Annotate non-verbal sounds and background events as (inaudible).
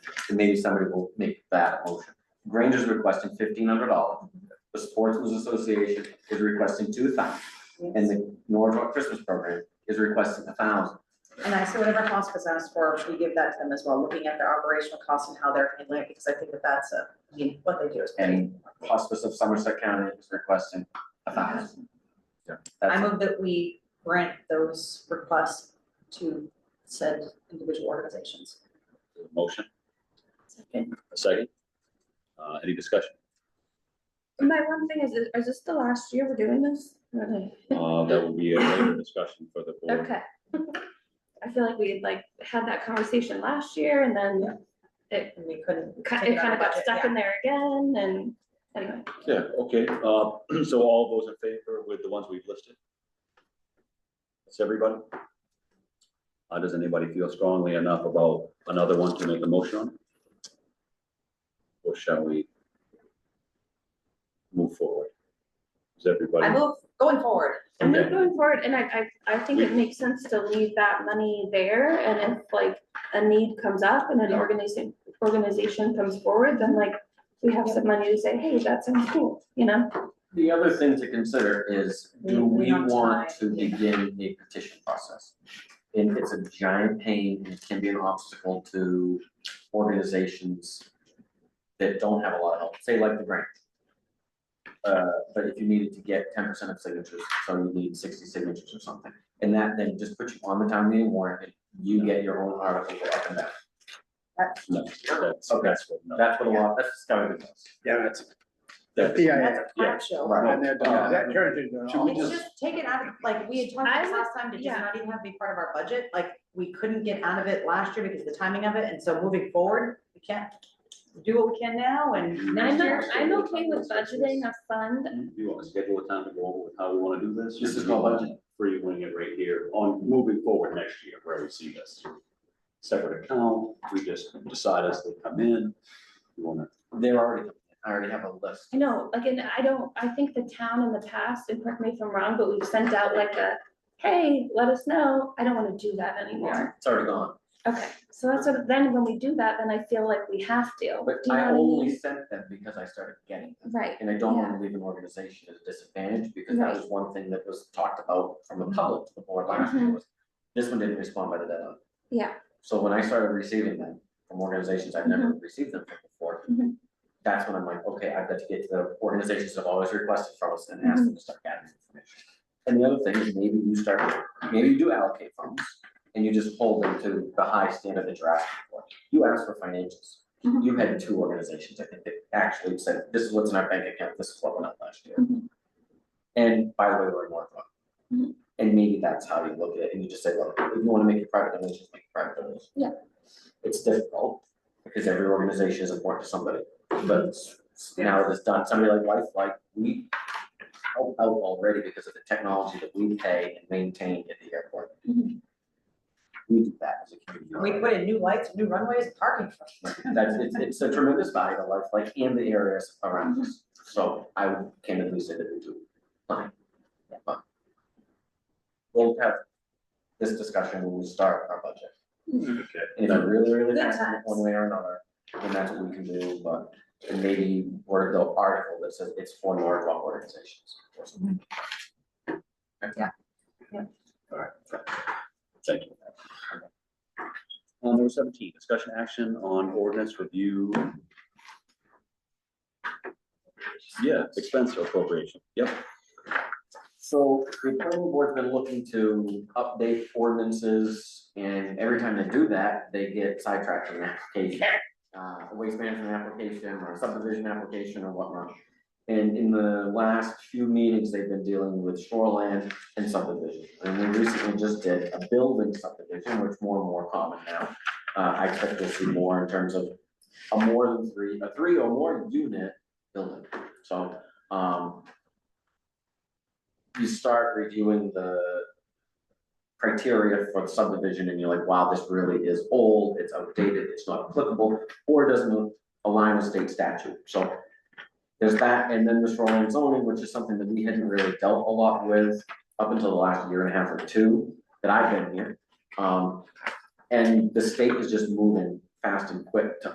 and maybe somebody will make that motion. Granger's requesting fifteen hundred dollars, the Sportsman's Association is requesting two thousand, and the Norwood Christmas Program is requesting a thousand. And I say whatever hospice asks for, we give that to them as well, looking at their operational costs and how they're handling it, because I think that that's a, I mean, what they do is pretty. And Hospice of Somerset County is requesting a thousand. Yeah. I That's, move that we grant those requests to said individual organizations. There's a Motion, a second. Uh, any discussion? My one thing is, is this the last year we're doing this? Uh, that will be a later discussion for the board. Okay. (laughs) I feel like we had like had that conversation last year and then And we couldn't. ki- it kind of got stuck in there again and anyway. Yeah, okay, uh, (clears throat) so all those in favor with the ones we've listed? That's everybody? Uh, does anybody feel strongly enough about another one to make a motion on? Or shall we? Move forward? Is everybody? I move, going forward, I'm Okay. not going forward and I, I, I think it makes sense to leave that money there and if like a need comes up and an organization, organization comes forward, then like we have some money to say, hey, that sounds cool, you know? the other thing to consider is, do We- we we don't want tie- to yeah. begin the petition process? And it's a giant pain and it can be an obstacle to organizations that don't have a lot of help, say like the grant. Uh, but if you needed to get ten percent of signatures, so you need sixty signatures or something, and that then just puts you on the town meeting warrant, and you get your own article up and down. No, that's, Okay. that's what, no. That's what a lot, that's just how it is. Yeah, that's, That- Yeah, that's a yeah. crap show. Right. and that, that turns it. Should we It's just take it out of, like, we had talked about I this would- last time to just yeah. not even have to be part of our budget, like, we couldn't get out of it last year because of the timing of it, and so moving forward, we can't do what we can now and next I'm, year. I'm okay with budgeting a fund. Do you want to schedule a time to go over with how we want to do this? This is Or do you called want For you winning it right here on moving forward next year, where we see this. Separate account, we just decide as they come in. You want to, They're already, I already have a list. I know, like, and I don't, I think the town in the past, and correct me if I'm wrong, but we've sent out like a, hey, let us know. I don't wanna do that anymore. It's already gone. Okay, so that's what, then when we do that, then I feel like we have to. But Do you know I what only mean? sent them because I started getting them. Right, And I don't want to leave an organization at a disadvantage because that was one thing that was talked about from the public to the board last year was this one didn't respond by the deadline. yeah, So when I started receiving them from organizations I've never received them from before, Mhm. that's when I'm like, okay, I've got to get to the organizations that have always requested from us and ask them to start gathering information. And the other thing is maybe you start, maybe you do allocate funds and you just hold them to the high standard that you're asking for. You asked for financials. Mhm. You had two organizations, I think, that actually said, this is what's in our bank account, this is what went out last year. Mhm. And by the way, we're in Norfolk. Mhm. And maybe that's how you look at it, and you just say, look, if you wanna make it private donations, make it private donations. Yeah. It's difficult, because every organization is important to somebody, but it's- it's now that it's done, somebody like Life, like, we help out already because of the technology that we pay and maintain at the airport. Mhm. We do that as a community. We put in new lights, new runways, parking. That's, it's, it's a tremendous value to life, like in the areas around us, so I would candidly say that we do. Fine. Yeah, fine. We'll have this discussion when we start our budget, okay, and if it really, really Good matters times. one way or another, then that's what we can do, but and maybe word the article that says it's for Norwalk organizations. or something. thank you. Uh, number seventeen, discussion action on ordinance review. Yeah, expense appropriation, yep. So the planning board's been looking to update ordinances and every time they do that, they get sidetracked from the application. Uh, a waste management application or a subdivision application or whatnot. And in the last few meetings, they've been dealing with shoreland and subdivision. And we recently just did a building subdivision, which more and more common now. Uh, I expect to see more in terms of a more than three, a three or more unit building. So, um, you start reviewing the criteria for subdivision and you're like, wow, this really is old, it's outdated, it's not applicable, or it doesn't align with state statute, so there's that, and then the shoreline zoning, which is something that we hadn't really dealt a lot with up until the last year and a half or two that I've been here. Um, and the state is just moving fast and quick to